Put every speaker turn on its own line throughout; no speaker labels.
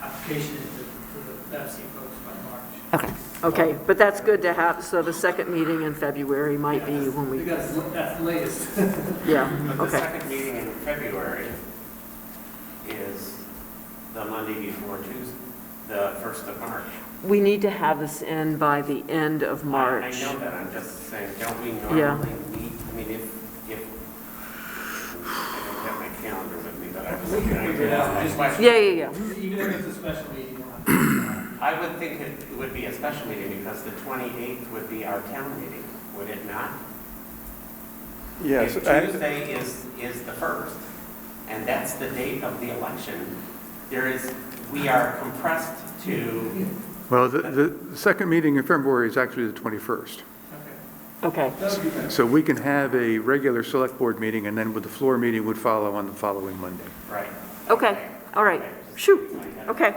notification to to the Pepsi folks by March.
Okay, okay, but that's good to have, so the second meeting in February might be when we,
Because that's the latest.
yeah,
The
okay,
second meeting in February is the Monday before Tuesday, the first of March.
we need to have this in by the end of
I
March.
know that, I'm just saying, don't we
Yeah.
normally meet, I mean, if, if, I don't have my calendar with me, but I was looking at
Figure it out, just
it.
by-
Yeah, yeah, yeah,
Even if it's a special meeting, we'll have to-
I would think it would be a special meeting because the 28th would be our town meeting, would it not?
Yes,
If
I-
Tuesday is, is the first, and that's the date of the election, there is, we are compressed to,
well, the, the second meeting in February is actually the 21st.
okay.
okay,
That would be good.
So we can have a regular select board meeting, and then with the floor meeting would follow on the following Monday.
right?
okay, all right, shoot, okay,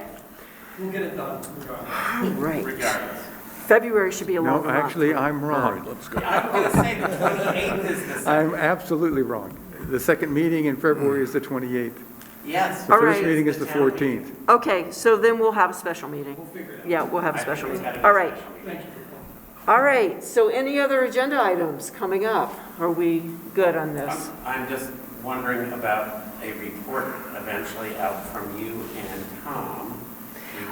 We'll get it done regardless.
all right.
Regardless.
February should be a long
No,
month.
actually, I'm wrong.
I'm going to say the 28th is the second.
I'm absolutely wrong. The second meeting in February is the 28th.
Yes.
The
All
first
right.
meeting is the
town meeting.
14th.
Okay, so then we'll have a special meeting.
We'll figure it out.
Yeah, we'll have a
I think
special
it's
meeting.
gotta be a
All right,
special meeting.
Thank you for calling.
all right, so any other agenda items coming up? Are we good on this?
I'm I'm just wondering about a report eventually out from you and Tom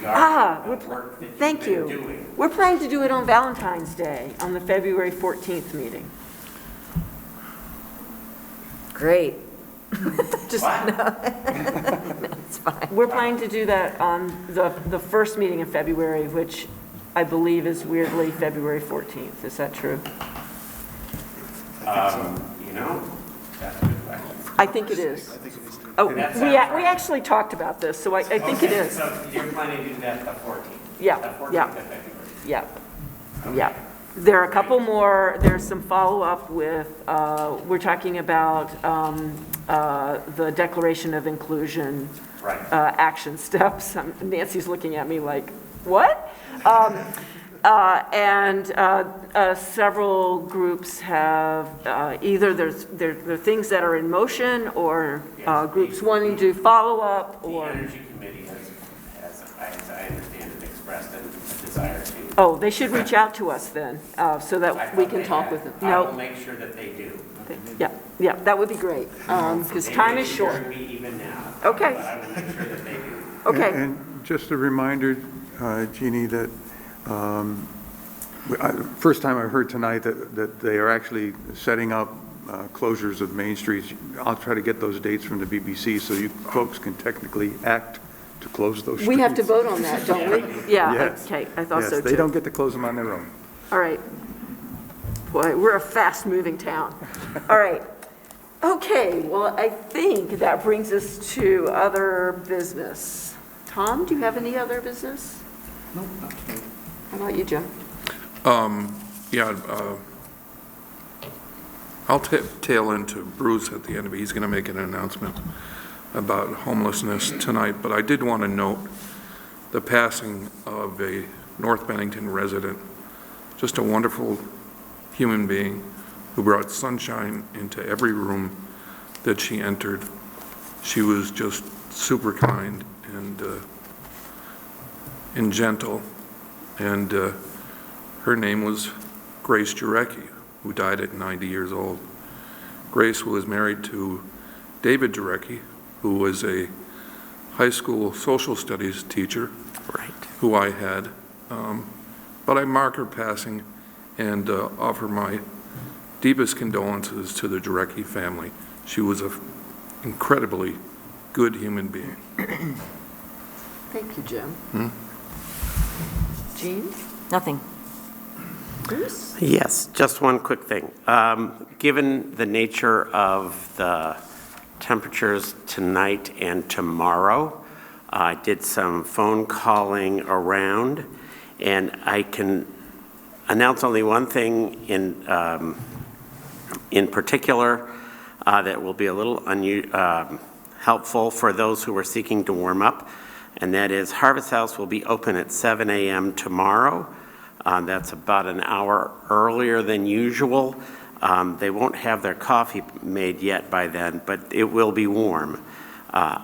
Ah,
regarding the
we're-
work that you've been doing.
Thank you. We're planning to do it on Valentine's Day, on the February 14th meeting.
Great.
Just,
What?
we're planning to do that on the, the first meeting in February, which I believe is weirdly February 14th. Is that true?
Um, You know, that's a good question.
I think it is. Oh, we, we
That sounds right.
actually talked about this, so I, I think it
Okay,
is.
So you're planning to do that the 14th?
Yeah,
The 14th
yeah.
of February.
Yep, yep. There are a couple more, there's some follow-up with, uh, we're talking about um, uh, the Declaration of Inclusion
Right.
uh, action steps. Um, Nancy's looking at me like, what? Um, uh, And uh, uh, several groups have, uh, either there's, there there are things that are in motion, or uh,
Yes.
groups wanting to follow up,
The
or,
Energy Committee has, has, as I understand it, expressed a desire to.
oh, they should reach out to us then, uh, so
I
that we
thought
can
they
talk
had.
with them.
I will
No,
make sure that they do.
yeah, yeah, that would be great, because
They
time
may
is
be
short.
hearing me even now.
Okay.
But I will make sure that they do.
And-
Okay,
And just a reminder, uh, Jeannie, that, um, we- I- first time I heard tonight that, that they are actually setting up uh, closures of Main Streets. I'll try to get those dates from the BBC so you folks can technically act to close those streets.
we have to vote on that, don't we? Yeah,
Yes.
okay, I thought
Yes,
so too.
They don't get to close them on their own.
All right. Boy, we're a fast-moving town. All right. Okay, well, I think that brings us to other business. Tom, do you have any other business? No. How about you, Jim?
Um, yeah, uh, I'll ta- tail into Bruce at the end of it. He's going to make an announcement about homelessness tonight, but I did want to note the passing of a North Bennington resident, just a wonderful human being who brought sunshine into every room that she entered. She was just super kind and, uh, and gentle, and, uh, her name was Grace Jarecki, who died at 90 years old. Grace was married to David Jarecki, who was a high school social studies teacher. Who I had. Um, But I mark her passing and uh, offer my deepest condolences to the Jarecki family. She was an incredibly good human being.
Thank you, Jim.
Hmm?
Jean?
Nothing.
Bruce?
Yes, just one quick thing. Um, Given the nature of the temperatures tonight and tomorrow, I did some phone calling around, and I can announce only one thing in, um, in particular uh, that will be a little unu- um, helpful for those who are seeking to warm up, and that is Harvest House will be open at 7 a.m. tomorrow. Uh, That's about an hour earlier than usual. Um, They won't have their coffee made yet by then, but it will be warm. Uh,